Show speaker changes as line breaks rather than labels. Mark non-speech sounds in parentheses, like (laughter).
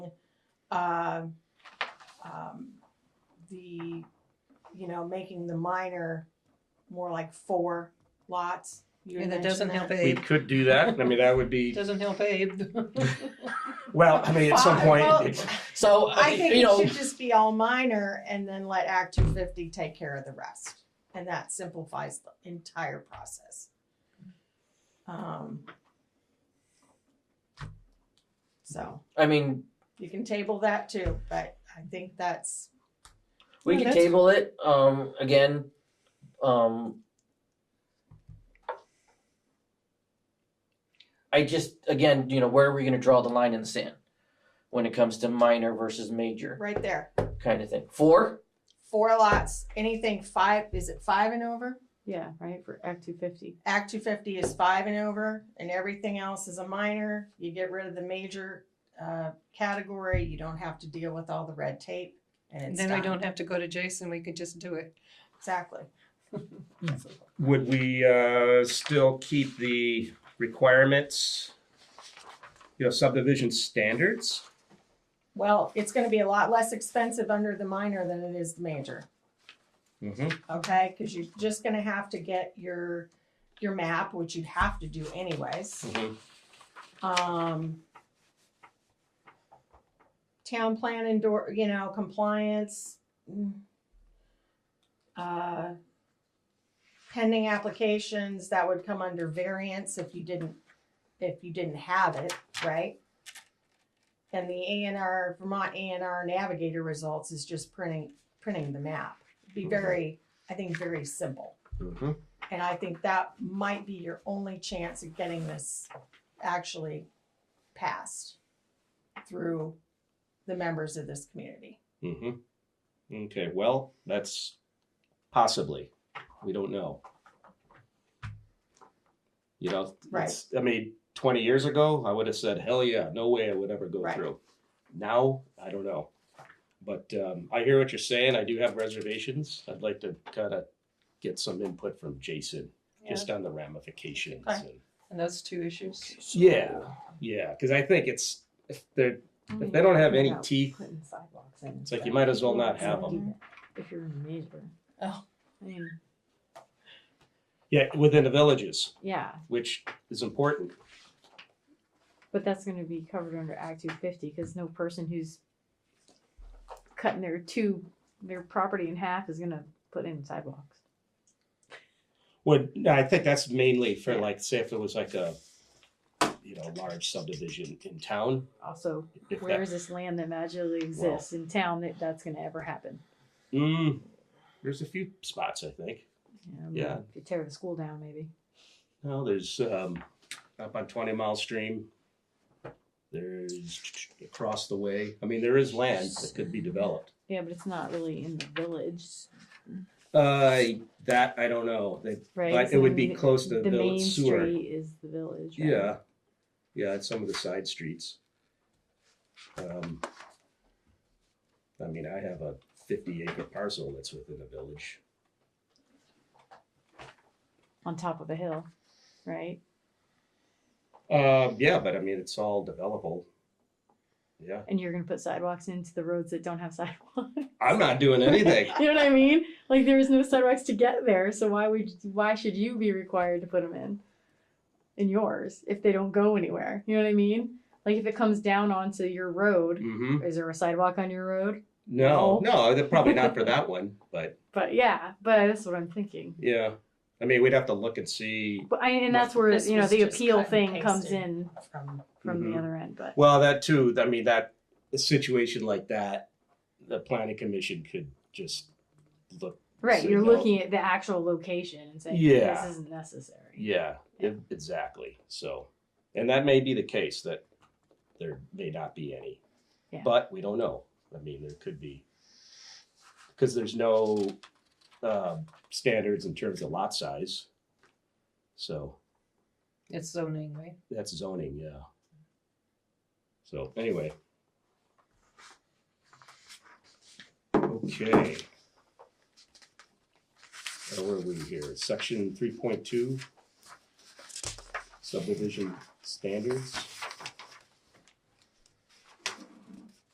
um, um, the, you know, making the minor more like four lots. You
And that
mentioned
doesn't help
We
Abe,
could do that. I mean, that would be,
doesn't help Abe.
well, I mean, at some
Fine.
point,
Well,
it's,
So,
I think
you
it
know,
should just be all minor and then let Act two fifty take care of the rest. And that simplifies the entire process. Um. So
I mean,
you can table that too, but I think that's,
we
Yeah,
can
that's-
table it, um, again, um. I just, again, you know, where are we gonna draw the line in the sand? When it comes to minor versus major
right there,
kind of thing. Four,
four lots, anything five, is it five and over?
Yeah, right, for Act two fifty.
Act two fifty is five and over, and everything else is a minor. You get rid of the major uh, category. You don't have to deal with all the red tape, and it's
(laughs) Then we
done.
don't have to go to Jason, we could just do it.
exactly.
would we, uh, still keep the requirements? You know, subdivision standards?
Well, it's going to be a lot less expensive under the minor than it is the major.
Mm-hmm.
Okay, because you're just going to have to get your your map, which you'd have to do anyways.
Mhm.
Um, town plan indoor, you know, compliance. mm, Uh, pending applications that would come under variance if you didn't if you didn't have it, right? And the A and R Vermont A and R Navigator results is just printing printing the map. Be very, I think, very simple.
Mm-hmm.
And I think that might be your only chance of getting this actually passed through the members of this community.
Mm-hmm. Okay, well, that's possibly, we don't know. You know,
Right.
it's, I mean, twenty years ago, I would have said, hell yeah, no way I would ever go
Right.
through. Now, I don't know. But, um, I hear what you're saying, I do have reservations, I'd like to kinda get some input from Jason, just on the ramifications
Okay.
and.
And those two issues.
Yeah, yeah, cause I think it's, if they're, if they don't have any teeth,
Putting sidewalks in.
it's like you might as well not have them.
If you're in major.
Oh.
I mean,
Yeah, within the villages.
yeah,
which is important.
but that's gonna be covered under Act two fifty, cause no person who's cutting their two, their property in half is gonna put in sidewalks.
Well, no, I think that's mainly for
Yeah.
like, say if it was like a, you know, large subdivision in town.
Also,
If
where
that-
is this land that magically exists in town that that's gonna ever happen?
Mm, there's a few spots, I think.
You know,
Yeah.
If you tear the school down, maybe.
No, there's um, up on Twenty Mile Stream. There's across the way. I mean, there is land that could be developed.
Yeah, but it's not really in the village,
Uh, that I don't know. They,
right?
But
So,
it
I
would be
mean,
close to the
main
village sewer.
street is the village. Right?
Yeah, yeah, it's some of the side streets. Um, I mean, I have a fifty acre parcel that's within a village.
on top of a hill, right?
Um, yeah, but I mean, it's all developable. Yeah,
And you're gonna put sidewalks into the roads that don't have (laughs) sidewalks.
I'm not doing
(laughs)
anything.
you know what I mean? Like there is no sidewalks to get there, so why would why should you be required to put them in? In yours, if they don't go anywhere, you know what I mean? Like if it comes down onto your road,
hmm
is there a sidewalk on your road?
No, no, they're probably not for that one, but
But yeah, but that's what I'm thinking.
yeah, I mean, we'd have to look and see.
But I, and that's where
This
you know
was
the
just
appeal
cut and
thing comes
pasted.
in
From
from
Mhm.
the other end. But
Well, that too, I mean, that, a situation like that, the planning commission could just look,
right,
So
you're
no.
looking at the actual location and saying
Yeah.
this isn't necessary.
Yeah,
Yeah.
e- exactly. So, and that may be the case that there may not be any,
Yeah.
but we don't know. I mean, there could be because there's no um, standards in terms of lot size. So
It's zoning, right?
that's zoning, yeah. So anyway. Okay. Now, Where are we here? Section three point two. Subdivision standards.